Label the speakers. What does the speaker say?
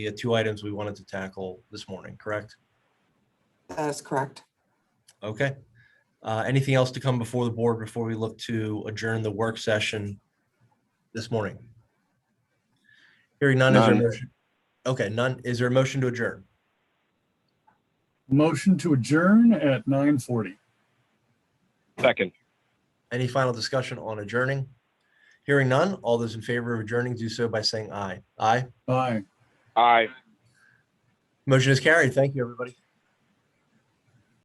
Speaker 1: the two items we wanted to tackle this morning, correct?
Speaker 2: That is correct.
Speaker 1: Okay. Uh, Anything else to come before the board before we look to adjourn the work session this morning? Hearing none, is there a
Speaker 3: None.
Speaker 1: motion? Okay, none. Is there a motion to adjourn?
Speaker 4: Motion to adjourn at nine forty.
Speaker 3: Second.
Speaker 1: Any final discussion on adjourning? Hearing none, all those in favor of adjourning do so by saying aye. Aye.
Speaker 4: Aye.
Speaker 3: Aye.
Speaker 1: Motion is carried. Thank you, everybody.